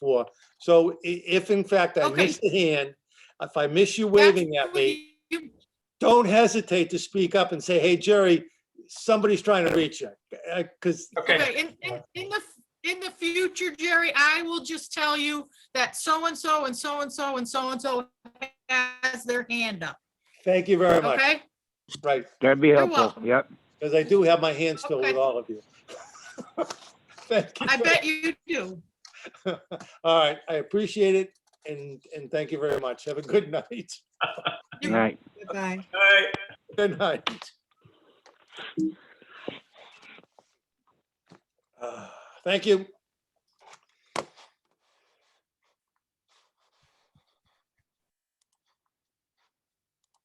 for. So i- if in fact I Okay. miss the hand, if I miss you waving at me, You- don't hesitate to speak up and say, hey, Jerry, somebody's trying to reach you. Uh, Because, Okay, in, in, in the, in the future, Jerry, I will just tell you that so-and-so and so-and-so and so-and-so has their hand up, thank you very much. okay? Right, That'd be You're helpful, welcome. yep. because I do have my hand still with Okay. all of you. Thank you. I bet you do. All right, I appreciate it and, and thank you very much. Have a good night. All right. Bye. right. Good night. Uh, Thank you.